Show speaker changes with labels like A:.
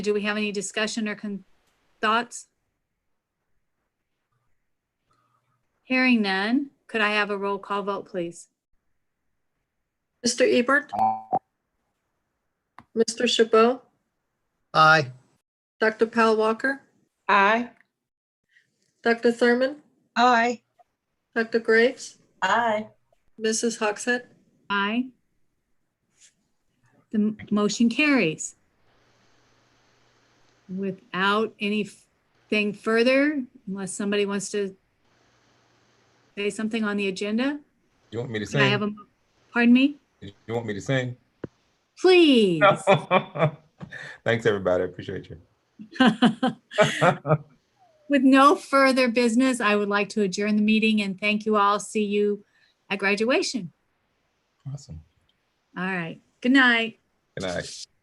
A: Do we have any discussion or con- thoughts? Hearing none, could I have a roll call vote, please?
B: Mr. Ebert? Mr. Chabot?
C: Aye.
B: Dr. Pal Walker?
D: Aye.
B: Dr. Thurman?
D: Aye.
B: Dr. Graves?
D: Aye.
B: Mrs. Hogshead?
A: Aye. The m- motion carries. Without anything further, unless somebody wants to say something on the agenda,
E: You want me to
A: could I have
E: sing?
A: a, pardon me?
E: You want me to sing?
A: Please.
E: Thanks, everybody. I appreciate you.
A: With no further business, I would like to adjourn the meeting and thank you all. See you at graduation.
E: Awesome.
A: All right. Good night.
E: Good night.